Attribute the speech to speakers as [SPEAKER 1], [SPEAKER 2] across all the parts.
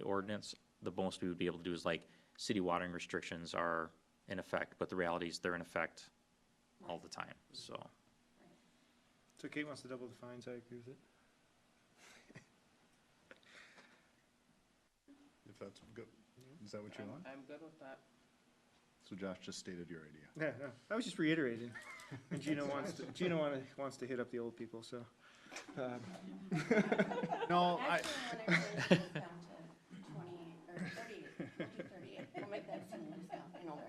[SPEAKER 1] ordinance, the most we would be able to do is like, city watering restrictions are in effect, but the reality is they're in effect all the time, so.
[SPEAKER 2] So Kate wants to double the fines, I agree with it.
[SPEAKER 3] If that's good, is that what you
[SPEAKER 4] I'm-
[SPEAKER 3] want?
[SPEAKER 4] I'm good with that.
[SPEAKER 3] So Josh just stated your idea.
[SPEAKER 2] Yeah, no, I was just reiterating. And Gino wants to, Gino wanna, wants to hit up the old people, so. um,
[SPEAKER 3] No, I,
[SPEAKER 5] Actually, when it really goes down to twenty, or thirty, twenty thirty-eight, we'll make that seem like something older.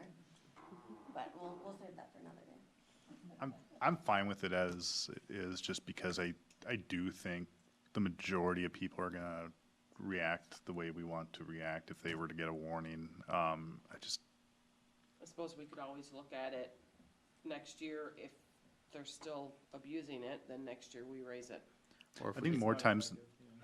[SPEAKER 5] But we'll, we'll save that for another day.
[SPEAKER 3] I'm, I'm fine with it as it is, just because I, I do think the majority of people are gonna react the way we want to react if they were to get a warning. Um, I just,
[SPEAKER 4] I suppose we could always look at it next year, if they're still abusing it, then next year we raise it.
[SPEAKER 1] or if
[SPEAKER 3] I
[SPEAKER 1] we
[SPEAKER 3] think
[SPEAKER 1] could-
[SPEAKER 3] more times,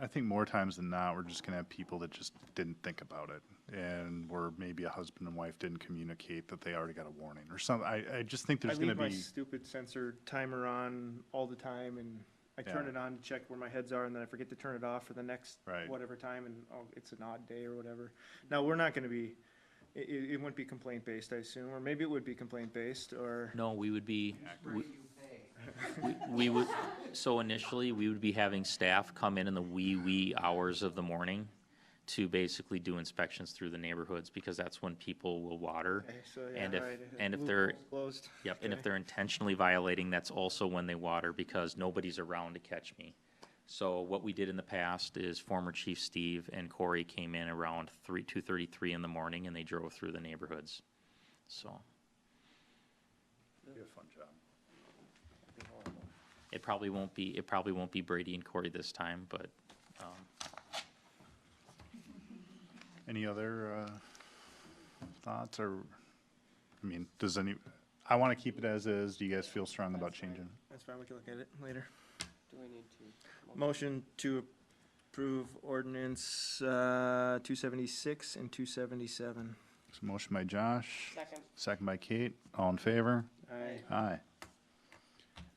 [SPEAKER 3] I think more times than not, we're just gonna have people that just didn't think about it. And where maybe a husband and wife didn't communicate that they already got a warning or some, I, I just think
[SPEAKER 2] I
[SPEAKER 3] there's gonna
[SPEAKER 2] leave my
[SPEAKER 3] be,
[SPEAKER 2] stupid sensor timer on all the time and I turn
[SPEAKER 3] Yeah.
[SPEAKER 2] it on to check where my heads are and then I forget to turn it off for the next
[SPEAKER 3] Right.
[SPEAKER 2] whatever time and, oh, it's an odd day or whatever. Now, we're not gonna be, it, it, it wouldn't be complaint based, I assume, or maybe it would be complaint based or,
[SPEAKER 1] No, we would be, we- we- we would, so initially, we would be having staff come in in the wee, wee hours of the morning to basically do inspections through the neighborhoods, because that's when people will water.
[SPEAKER 2] Okay, eh, so, yeah,
[SPEAKER 1] And if,
[SPEAKER 2] right,
[SPEAKER 1] and if they're,
[SPEAKER 2] loophole's closed.
[SPEAKER 1] yep, and if
[SPEAKER 2] Okay.
[SPEAKER 1] they're intentionally violating, that's also when they water, because nobody's around to catch me. So what we did in the past is former Chief Steve and Corey came in around three, two thirty-three in the morning, and they drove through the neighborhoods, so.
[SPEAKER 3] Be a fun job.
[SPEAKER 1] It probably won't be, it probably won't be Brady and Corey this time, but, um,
[SPEAKER 3] Any other uh, thoughts or, I mean, does any, I want to keep it as is. Do you guys feel strong about
[SPEAKER 4] That's fine.
[SPEAKER 3] changing?
[SPEAKER 2] That's fine, we can look at it later.
[SPEAKER 4] Do we need to?
[SPEAKER 2] Motion to approve ordinance, uh, two seventy-six and two seventy-seven.
[SPEAKER 3] So motion by Josh,
[SPEAKER 4] Second.
[SPEAKER 3] second by Kate. All in favor?
[SPEAKER 2] Aye.
[SPEAKER 3] Aye.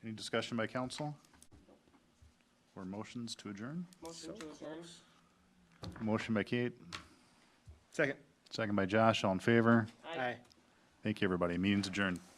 [SPEAKER 3] Any discussion by council? Or motions to adjourn?
[SPEAKER 4] Motion to adjourn.
[SPEAKER 3] Motion by Kate,
[SPEAKER 2] Second.
[SPEAKER 3] second by Josh. All in favor?
[SPEAKER 4] Aye.
[SPEAKER 3] Thank you, everybody. Meeting's adjourned.